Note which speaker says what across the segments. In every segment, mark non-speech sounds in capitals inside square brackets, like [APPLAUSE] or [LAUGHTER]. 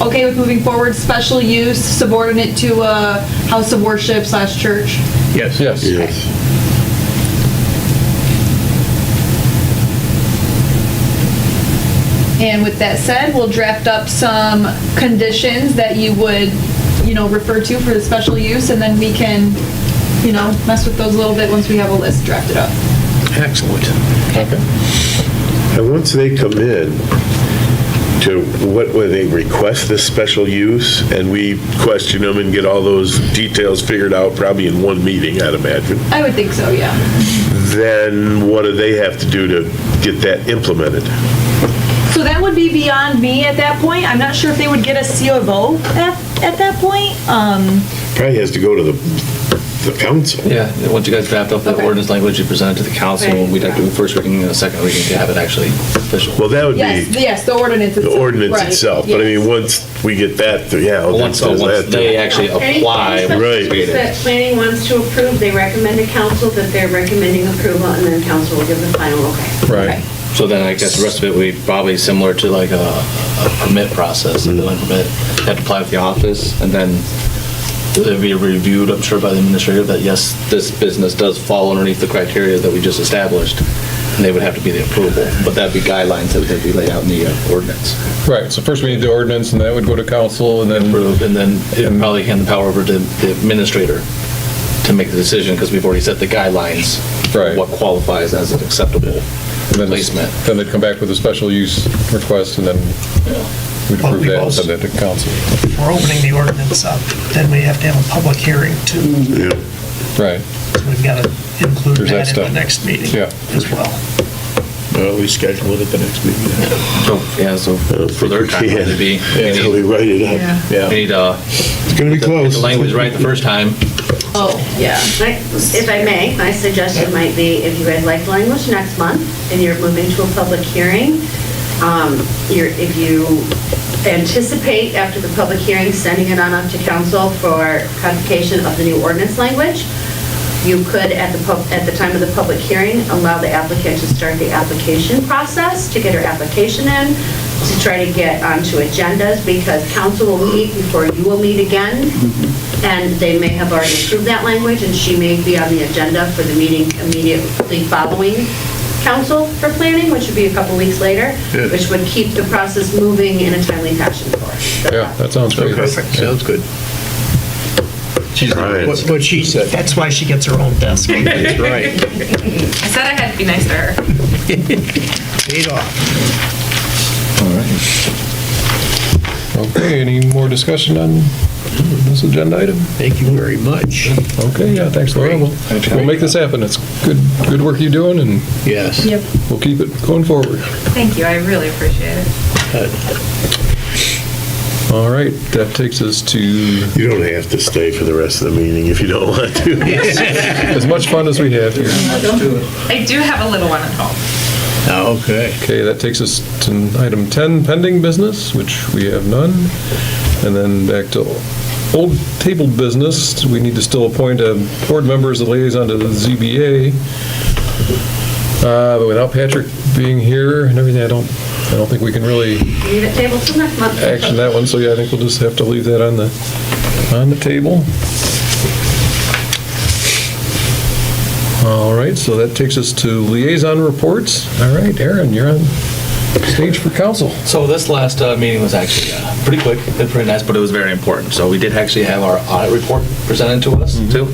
Speaker 1: okay with moving forward, special use subordinate to a house of worship slash church?
Speaker 2: Yes.
Speaker 3: Yes.
Speaker 4: Yes.
Speaker 1: And with that said, we'll draft up some conditions that you would, you know, refer to for the special use, and then we can, you know, mess with those a little bit once we have a list drafted up.
Speaker 2: Excellent.
Speaker 4: And once they come in, to what, where they request this special use, and we question them and get all those details figured out, probably in one meeting, I'd imagine,
Speaker 1: I would think so, yeah.
Speaker 4: then what do they have to do to get that implemented?
Speaker 1: So that would be beyond me at that point. I'm not sure if they would get a CO of O at, at that point. Um,
Speaker 4: Probably has to go to the, the council.
Speaker 3: Yeah, and once you guys draft up the
Speaker 1: Okay.
Speaker 3: ordinance language, you present it to the council,
Speaker 1: Okay.
Speaker 3: we'd have to do first reading and a second reading to have it actually official.
Speaker 4: Well, that would
Speaker 1: yes,
Speaker 4: be
Speaker 1: yes, the ordinance
Speaker 4: the
Speaker 1: itself.
Speaker 4: ordinance
Speaker 1: Right,
Speaker 4: itself, but I
Speaker 1: yes.
Speaker 4: mean, once we get that, through, yeah. well,
Speaker 3: Once,
Speaker 4: that says
Speaker 3: once
Speaker 4: that,
Speaker 3: they actually
Speaker 5: Any-
Speaker 3: apply.
Speaker 5: any
Speaker 4: Right.
Speaker 5: substitutes That planning wants to approve, they recommend to council that they're recommending approval, and then council will give the final okay.
Speaker 3: Right. So then I guess the rest of it would be probably similar to like a a permit process, a building permit. You have to apply with the office, and then it'd be reviewed, I'm sure, by the administrator that yes, this business does fall underneath the criteria that we just established, and they would have to be the approval. But that'd be guidelines that would be laid out in the uh, ordinance.
Speaker 6: Right, so first we need the ordinance, and that would go to council, and then,
Speaker 3: approved, and then it'd probably hand the power over to the administrator to make the decision, because we've already set the guidelines. for
Speaker 6: Right.
Speaker 3: What qualifies as an acceptable
Speaker 6: then
Speaker 3: placement.
Speaker 6: then they'd come back with a special use request, and then we'd
Speaker 7: Well,
Speaker 6: approve
Speaker 7: we've
Speaker 6: that and
Speaker 7: also-
Speaker 6: send it to council.
Speaker 7: If we're opening the ordinance up, then we have to have a public hearing too.
Speaker 4: yeah.
Speaker 6: Right,
Speaker 7: So We've got to include
Speaker 6: There's that
Speaker 7: that
Speaker 6: stuff.
Speaker 7: in the next meeting
Speaker 6: Yeah.
Speaker 7: as well.
Speaker 8: Well, we schedule it at the next meeting.
Speaker 3: So, yeah, so for their time, it'd be, we
Speaker 4: [LAUGHS] Yeah, we
Speaker 3: need-
Speaker 4: write it up.
Speaker 3: we need, uh,
Speaker 4: It's gonna be
Speaker 3: get
Speaker 4: close.
Speaker 3: the language right the first time.
Speaker 1: Oh, yeah.
Speaker 5: Right? If I may, my suggestion might be, if you guys like language next month, and you're moving to a public hearing, um, you're, if you anticipate after the public hearing, sending it on up to council for codification of the new ordinance language, you could, at the, pub- at the time of the public hearing, allow the applicant to start the application process, to get her application in, to try to get onto agendas, because council will meet before you will meet again, and they may have already approved that language, and she may be on the agenda for the meeting immediately following council for planning, which would be a couple weeks later, which would keep the process moving in a timely fashion for us.
Speaker 6: yeah, that sounds great.
Speaker 8: Perfect. Sounds good. She's
Speaker 4: right.
Speaker 8: What
Speaker 7: What she said, that's why she gets her own
Speaker 6: [LAUGHS]
Speaker 7: desk
Speaker 8: That's right.
Speaker 9: I said I had to be nice to her.
Speaker 7: paid off.
Speaker 6: Okay, any more discussion on this agenda item?
Speaker 8: Thank you very much.
Speaker 6: Okay, yeah, thanks, Laura. We'll we'll make this happen. It's good, good work you're doing, and
Speaker 8: Yes. Yep.
Speaker 6: we'll keep it going forward.
Speaker 9: Thank you, I really appreciate it.
Speaker 6: All right, that takes us to,
Speaker 4: You don't have to stay for the rest of the meeting if you don't want to.
Speaker 6: as much fun as we have here.
Speaker 9: I do have a little one at home.
Speaker 8: Okay.
Speaker 6: Okay, that takes us to item 10, pending business, which we have none. And then back to old table business, we need to still appoint a board member as a liaison to the ZBA. Uh, But without Patrick being here and everything, I don't, I don't think we can really
Speaker 5: Leave it table till next month.
Speaker 6: action that one, so yeah, I think we'll just have to leave that on the, on the table. All right, so that takes us to liaison reports. All right, Aaron, you're on stage for council.
Speaker 3: So this last uh, meeting was actually uh, pretty quick, and pretty nice, but it was very important. So we did actually have our audit report presented to us, too.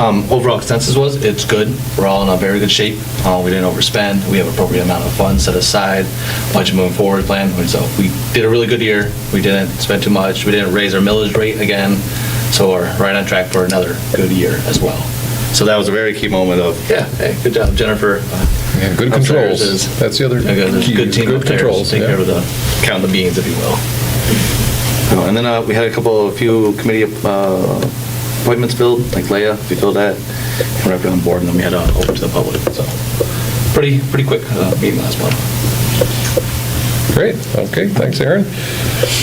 Speaker 3: Um, Overall consensus was, it's good, we're all in a very good shape, Uh, we didn't overspend, we have appropriate amount of funds set aside, budget moving forward plan, so we did a really good year, we didn't spend too much, we didn't raise our millage rate again, so we're right on track for another good year as well. So that was a very key moment of, yeah, hey, good job, Jennifer. uh,
Speaker 6: Yeah, good
Speaker 3: Upstairs
Speaker 6: controls.
Speaker 3: is-
Speaker 6: That's the other
Speaker 3: I got a
Speaker 6: key,
Speaker 3: good team
Speaker 6: good
Speaker 3: up there,
Speaker 6: controls,
Speaker 3: take
Speaker 6: yeah.
Speaker 3: care of the, count the beans, if you will. Uh, And then uh, we had a couple, a few committee uh, appointments filled, like Leah, if you filled that, and we're everybody on board, and then we had uh, open to the public, so, pretty, pretty quick uh, meeting last month.
Speaker 6: Great, okay, thanks, Aaron.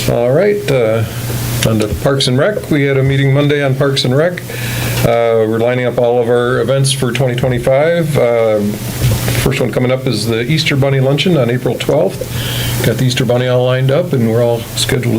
Speaker 6: All right, uh, on to Parks and Rec. We had a meeting Monday on Parks and Rec. Uh, We're lining up all of our events for 2025. Um, First one coming up is the Easter Bunny Luncheon on April 12th. Got the Easter Bunny all lined up, and we're all scheduled